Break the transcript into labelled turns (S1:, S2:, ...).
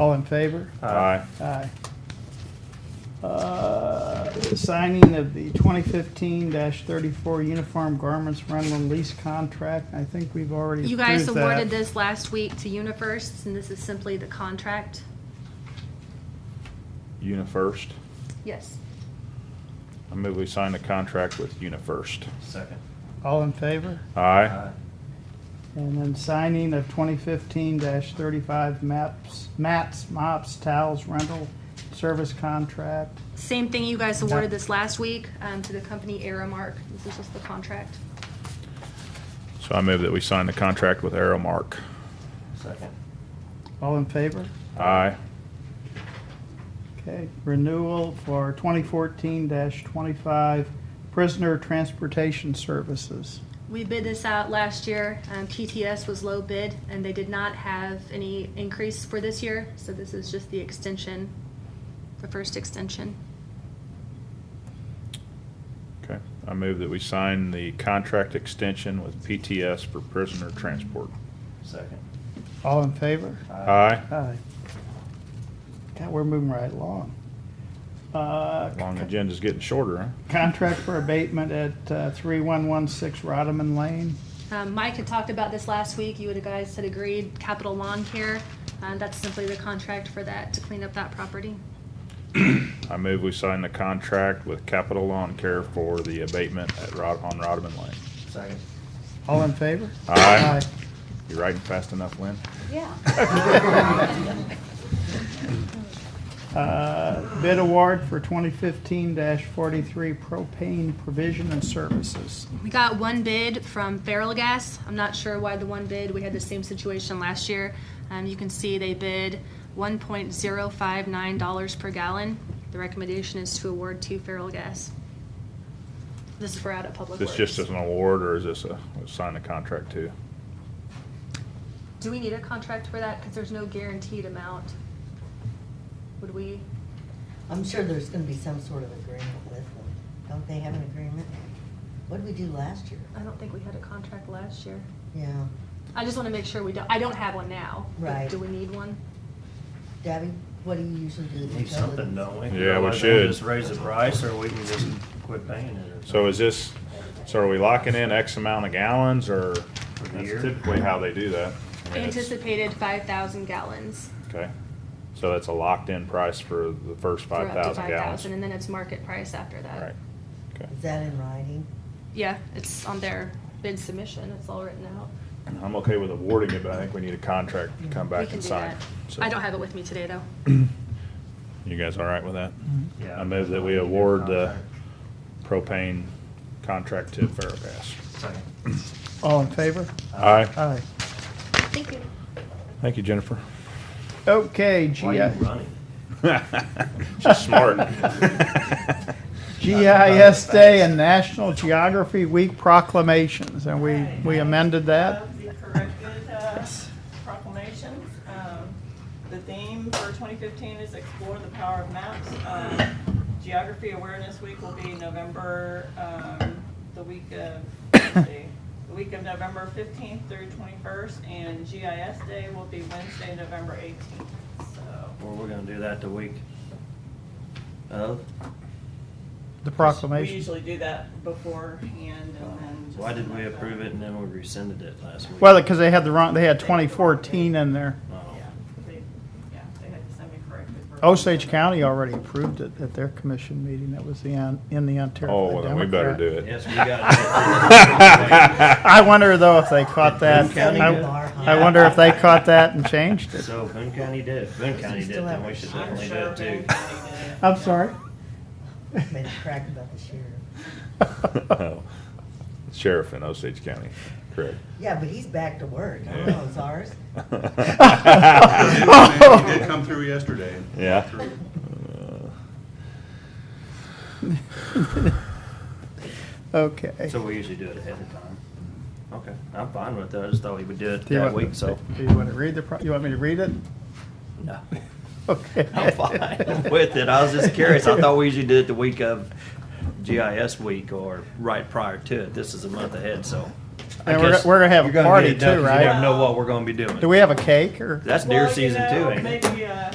S1: All in favor?
S2: Aye.
S1: Aye. Uh, Signing of the 2015-34 Uniform Garments Rental and Lease Contract. I think we've already
S3: You guys
S1: approved that.
S3: awarded this last week to UniFirst, and this is simply the contract.
S2: UniFirst.
S3: Yes.
S2: I move we sign the contract with UniFirst.
S4: Second.
S1: All in favor?
S2: Aye.
S1: And then signing of 2015-35 MAPS, mats, mops, towels rental service contract.
S3: Same thing you guys awarded this last week um, to the company Aramark. This is just the contract.
S2: So I move that we sign the contract with Aramark.
S4: Second.
S1: All in favor?
S2: Aye.
S1: Okay, renewal for 2014-25 prisoner transportation services.
S3: We bid this out last year. Um, PTS was low bid, and they did not have any increase for this year, so this is just the extension, the first extension.
S2: Okay. I move that we sign the contract extension with PTS for prisoner transport.
S4: Second.
S1: All in favor?
S2: Aye.
S1: Aye. God, we're moving right along. Uh,
S2: Long agenda's getting shorter, huh?
S1: Contract for abatement at uh, 3116 Rodman Lane.
S3: Um, Mike had talked about this last week. You would- guys had agreed capital lawn care. Um, That's simply the contract for that, to clean up that property.
S2: I move we sign the contract with Capital Lawn Care for the abatement at Rod, on Rodman Lane.
S4: Second.
S1: All in favor?
S2: Aye. You writing fast enough, Lynn?
S1: Aye. Uh, Bid award for 2015-43 propane provision and services.
S3: We got one bid from Feral Gas. I'm not sure why the one bid. We had the same situation last year. Um, you can see they bid one point zero five nine dollars per gallon. The recommendation is to award to Feral Gas. This is for out of public
S2: This
S3: works.
S2: just as an award, or is this a, sign the contract too?
S3: Do we need a contract for that? Because there's no guaranteed amount. Would we?
S5: I'm sure there's gonna be some sort of agreement with them. Don't they have an agreement? What did we do last year?
S3: I don't think we had a contract last year.
S5: Yeah,
S3: I just want to make sure we don't, I don't have one now. but
S5: Right.
S3: Do we need one?
S5: Debbie, what do you usually do? with
S4: Need something,
S5: utilities?
S4: don't we?
S2: Yeah, we
S4: Otherwise,
S2: should.
S4: Just raise the price, or we can just quit paying it. or
S2: So is this, so are we locking in X amount of gallons, or
S4: For the
S2: that's
S4: year?
S2: typically how they do that? I mean, it's-
S3: Anticipated five thousand gallons.
S2: Okay, so that's a locked-in price for the first
S3: for
S2: five
S3: up to
S2: thousand
S3: five thousand,
S2: gallons?
S3: and then it's market price after that.
S2: Right, okay.
S5: Is that in writing?
S3: Yeah, it's on their bid submission, it's all written out.
S2: I'm okay with awarding it, but I think we need a contract to come
S3: We
S2: back
S3: can
S2: and
S3: do
S2: sign.
S3: that.
S2: So-
S3: I don't have it with me today, though.
S2: You guys all right with that?
S4: something. Mm-hmm. Yeah.
S2: I move that we
S4: Need a
S2: award the
S4: contract.
S2: propane contract to Ferrogas.
S4: Second.
S1: All in favor?
S2: Aye.
S1: Aye.
S3: Thank you.
S2: Thank you, Jennifer.
S1: Okay, GI.
S4: Why are you running?
S2: She's smart.
S1: GIS Day and National Geography Week proclamations, and we, we amended that.
S6: Of The corrected uh, proclamations. Um, The theme for 2015 is explore the power of maps. Uh, Geography Awareness Week will be November, um, the week of, let's see, the week of November 15th through 21st, and GIS Day will be Wednesday, November 18th. So
S4: Or we're gonna do that the week of?
S1: The
S6: we
S1: proclamation.
S6: usually do that beforehand and then. just-
S4: Why did we approve it and then we rescinded it last week?
S1: Well, because they had the wrong, they had 2014 in there.
S4: Oh.
S6: Yeah, they, yeah, they had to send me corrected. version.
S1: Osage County already approved it at their commission meeting. That was the, on- in the Ontario
S2: Oh,
S1: Democrat.
S2: then we better do it.
S4: Yes, we got
S1: I wonder though if they caught that.
S4: Boone County
S1: I
S4: did.
S1: I wonder if they caught that and changed
S4: it.
S1: it.
S4: So Boone County did, if Boone County did, then we should
S6: I'm
S4: definitely do
S6: sure
S4: it
S6: Van
S4: too.
S6: County did it.
S1: I'm sorry.
S5: Made a crack about the sheriff.
S2: Oh. Sheriff in Osage County, correct.
S5: Yeah, but he's back to work. I don't know, it's ours.
S7: He did come through yesterday.
S2: Yeah.
S1: Okay.
S4: So we usually do it ahead of time. Okay, I'm fine with that, I just thought we would do it
S1: Do you
S4: that
S1: want-
S4: week, so.
S1: Do you want to read the, pro- you want me to read it?
S4: No,
S1: Okay.
S4: I'm fine with it, I was just curious, I thought we usually did it the week of GIS week or right prior to it, this is a month ahead, so. I
S1: And we're,
S4: guess
S1: we're gonna have
S4: you're
S1: a
S4: get
S1: party
S4: it done
S1: too,
S4: 'cause
S1: right?
S4: You don't know what we're gonna be doing.
S1: Do we have a cake or?
S4: That's deer
S6: Well, you
S4: season
S6: know,
S4: too, ain't it?
S6: Maybe, uh,